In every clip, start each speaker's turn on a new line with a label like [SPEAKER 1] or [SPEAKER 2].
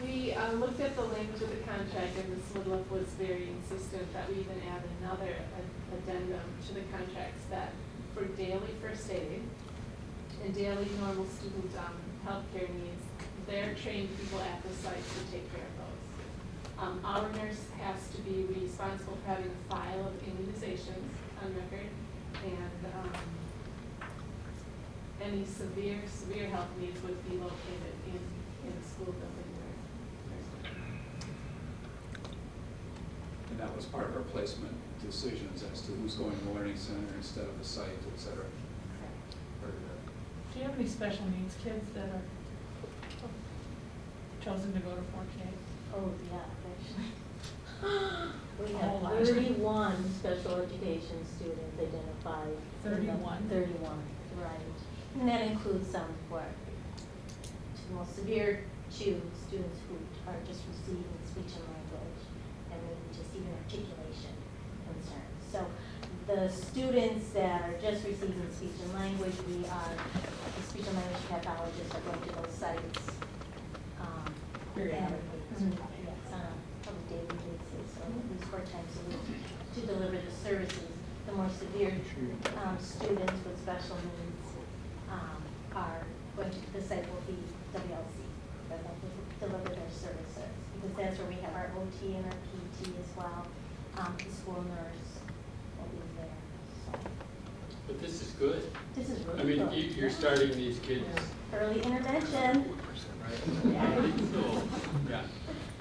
[SPEAKER 1] um, looked at the language of the contract, and Ms. Woodruff was very insistent that we even add another ad- addendum to the contracts that for daily first aid and daily normal student um, healthcare needs, they're trained people at the site to take care of those. Um, Our nurse has to be responsible for having a file of immunizations on record, and um, any severe, severe health needs would be located in, in the school building where there's.
[SPEAKER 2] And that was part of our placement decisions as to who's going to the learning center instead of the site, et cetera. Or, uh,
[SPEAKER 3] Do you have any special needs kids that are chosen to go to four K?
[SPEAKER 4] Oh, yeah, actually. We
[SPEAKER 3] Oh,
[SPEAKER 4] have
[SPEAKER 3] last year.
[SPEAKER 4] thirty-one special education students identified. in the-
[SPEAKER 3] 31?
[SPEAKER 4] Thirty-one, right. And that includes some who are the most severe two students who are just receiving speech and language and maybe just even articulation concerns. So the students that are just receiving speech and language, we are, the speech and language pathologists are going to those sites um,
[SPEAKER 3] Very
[SPEAKER 4] and-
[SPEAKER 3] adequately.
[SPEAKER 4] Mhm,
[SPEAKER 5] Mm-hmm.
[SPEAKER 4] yes, on a- on a daily basis, so at least four times a week, to deliver the services. The more severe um, students with special needs um, are, going to- the site will be WLC, where they'll deliver their services. Because that's where we have our OT and our PT as well, Um, the school nurse will be there, so.
[SPEAKER 5] But this is good.
[SPEAKER 4] This is
[SPEAKER 5] I
[SPEAKER 4] really
[SPEAKER 5] mean,
[SPEAKER 4] good.
[SPEAKER 5] you- you're starting these kids,
[SPEAKER 4] Early intervention.
[SPEAKER 5] right? So, yeah.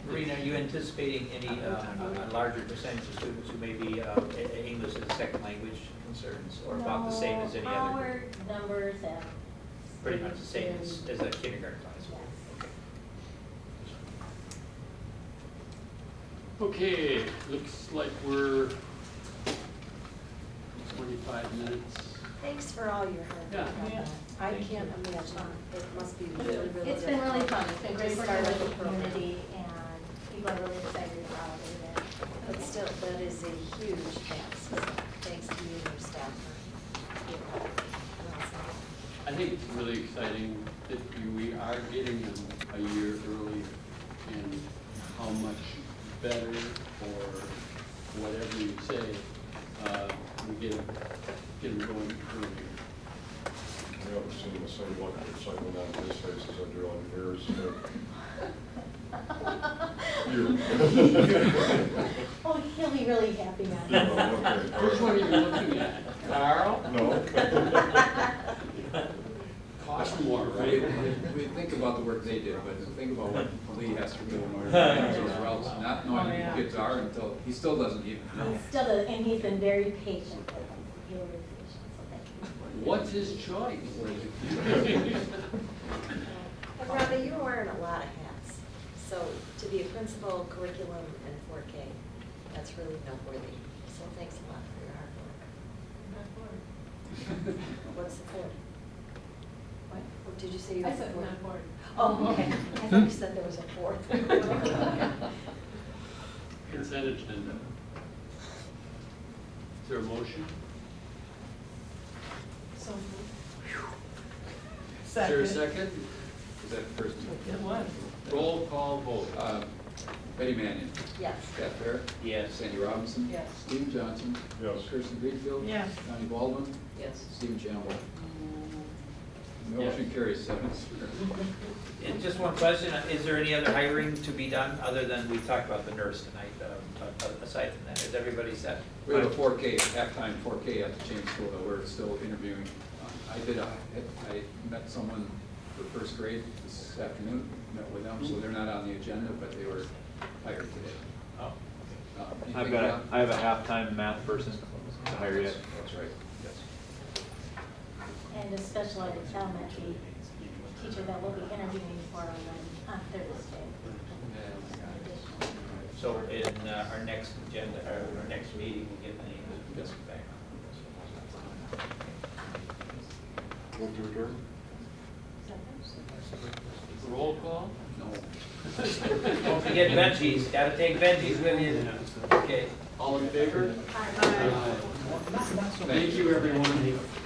[SPEAKER 6] Rena, are you anticipating any, uh, a larger percentage of students who may be uh, E- E- English as a second language concerns, or about the same as any
[SPEAKER 4] No,
[SPEAKER 6] other?
[SPEAKER 4] Our numbers have.
[SPEAKER 6] Pretty much the same as,
[SPEAKER 4] stayed
[SPEAKER 6] as a kindergarten class?
[SPEAKER 4] Yes.
[SPEAKER 6] Okay.
[SPEAKER 5] Okay, looks like we're twenty-five minutes.
[SPEAKER 7] Thanks for all your help.
[SPEAKER 5] Yeah.
[SPEAKER 3] Yeah.
[SPEAKER 7] I
[SPEAKER 6] Thank
[SPEAKER 7] can't imagine, it must be really, really
[SPEAKER 4] the-
[SPEAKER 7] difficult.
[SPEAKER 4] It's been really fun, it's been great
[SPEAKER 7] Just
[SPEAKER 4] working
[SPEAKER 7] started
[SPEAKER 4] with
[SPEAKER 7] the
[SPEAKER 4] the
[SPEAKER 7] program.
[SPEAKER 4] community and people are really excited about it. and-
[SPEAKER 7] But still, that is a huge task, so thanks to you and your staff for being all that.
[SPEAKER 5] I think it's really exciting that you- we are getting them a year earlier and how much better or whatever you say, uh, we get, 'em- get them going earlier.
[SPEAKER 8] I haven't seen the same look of excitement on his face as I do on yours. You.
[SPEAKER 4] Oh, he'll be really happy
[SPEAKER 8] Yeah,
[SPEAKER 4] now.
[SPEAKER 8] uh, okay.
[SPEAKER 5] Which one are you looking at? Carl?
[SPEAKER 8] No.
[SPEAKER 5] Cost more,
[SPEAKER 2] We,
[SPEAKER 5] right?
[SPEAKER 2] we- we think about the work they did, but think about what Lee has to do in order to manage those routes, not
[SPEAKER 3] Oh,
[SPEAKER 2] knowing
[SPEAKER 3] yeah.
[SPEAKER 2] who kids are until, he still doesn't even know.
[SPEAKER 4] He Still, does- and he's been very patient with us, really patient, so thank you.
[SPEAKER 5] What's his choice?
[SPEAKER 7] And Rhonda, you're wearing a lot of hats, so to be a principal, curriculum, and four K, that's really noteworthy. So thanks a lot for your hard work.
[SPEAKER 1] Not bored.
[SPEAKER 7] What's the code? What, What did you say? you
[SPEAKER 1] I
[SPEAKER 7] had
[SPEAKER 1] said
[SPEAKER 7] four?
[SPEAKER 1] not bored.
[SPEAKER 7] Oh, okay. I thought you said there was a fourth.
[SPEAKER 5] Consent agenda. Is there a motion?
[SPEAKER 3] So.
[SPEAKER 5] Is there a
[SPEAKER 3] Second.
[SPEAKER 5] second?
[SPEAKER 2] Is that first?
[SPEAKER 3] It was.
[SPEAKER 5] Roll call vote.
[SPEAKER 2] Uh, Betty Mannion,
[SPEAKER 7] Yes.
[SPEAKER 2] Scott Fair,
[SPEAKER 6] Yes.
[SPEAKER 2] Sandy Robinson.
[SPEAKER 3] Yes.
[SPEAKER 2] Steve Johnson.
[SPEAKER 8] Yes.
[SPEAKER 2] Kirsten Greenfield.
[SPEAKER 3] Yes.
[SPEAKER 2] Donnie Baldwin.
[SPEAKER 7] Yes.
[SPEAKER 2] Stephen Chambell.
[SPEAKER 5] Yes.
[SPEAKER 2] Motion carries seven to zero.
[SPEAKER 6] And just one question, uh, is there any other hiring to be done, other than, we talked about the nurse tonight, um, a- a- aside from that, is everybody set?
[SPEAKER 2] We have a four K, halftime four K at the James School that we're still interviewing. Uh, I did, a- I met someone for first grade this afternoon, met with them, so they're not on the agenda, but they were hired today.
[SPEAKER 6] Oh,
[SPEAKER 2] Uh,
[SPEAKER 9] I've
[SPEAKER 2] anything
[SPEAKER 9] got, a-
[SPEAKER 2] about-
[SPEAKER 9] I have a halftime math person to hire yet.
[SPEAKER 2] That's right, yes.
[SPEAKER 4] And a special ed elementary teacher that will be interviewing for on, Mon- on Thursday. Additional.
[SPEAKER 6] So in uh, our next agenda, or our next meeting, we'll get the names
[SPEAKER 2] Yes.
[SPEAKER 6] back.
[SPEAKER 8] Move to adjourn?
[SPEAKER 5] Roll call?
[SPEAKER 2] No.
[SPEAKER 6] Don't forget veggies, gotta take veggies with you. Okay.
[SPEAKER 5] All in favor? Aye. Thank you, everyone.